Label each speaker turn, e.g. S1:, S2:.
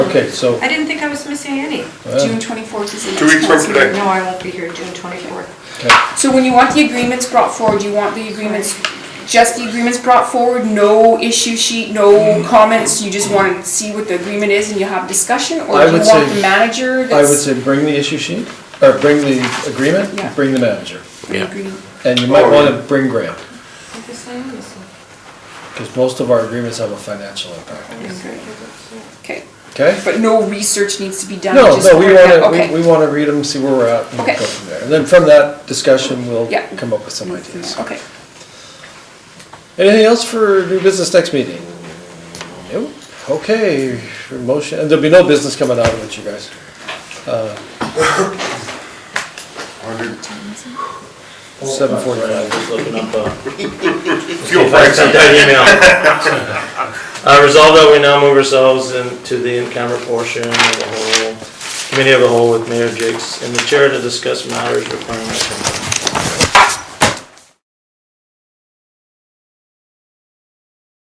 S1: Okay, so,
S2: I didn't think I was missing any.
S1: uh,
S3: June 24th is the
S4: Two
S3: next
S4: weeks from
S3: council
S4: today.
S3: meeting.
S2: No, I won't be here June 24th.
S1: okay.
S3: So when you want the agreements brought forward, you want the agreements, just the agreements brought forward, no issue sheet,
S1: Mm-hmm.
S3: no comments? You just want to see what the agreement is and you have discussion? Or
S1: I
S3: do you
S1: would
S3: want
S1: say-
S3: the manager
S1: I would
S3: that's?
S1: say bring the issue sheet, or bring the agreement,
S3: Yeah.
S1: bring the manager.
S5: Yeah.
S3: Agree.
S1: And you might
S4: Oh,
S1: want
S4: yeah.
S1: to bring Graham,
S2: I guess I am missing.
S1: because most of our agreements have a financial impact,
S3: Okay,
S1: okay?
S3: but no research needs to be done?
S1: No,
S3: just
S1: no, we
S3: point out-
S1: want to,
S3: okay.
S1: we want to read them, see where we're at, and
S3: Okay.
S1: go from there. And then from that discussion, we'll
S3: Yeah.
S1: come up with some ideas.
S3: Okay.
S1: Anything else for new business next meeting? Nope, okay, your motion, and there'll be no business coming out of it, you guys. Uh, Seven forty-five.
S6: Just looking up, uh,
S4: Fuel
S6: if I
S4: prices.
S6: sent that email. Uh, resolve that we now move ourselves into the in-camera portion of the whole, committee of the whole with Mayor Jakes in the chair to discuss matters requiring. a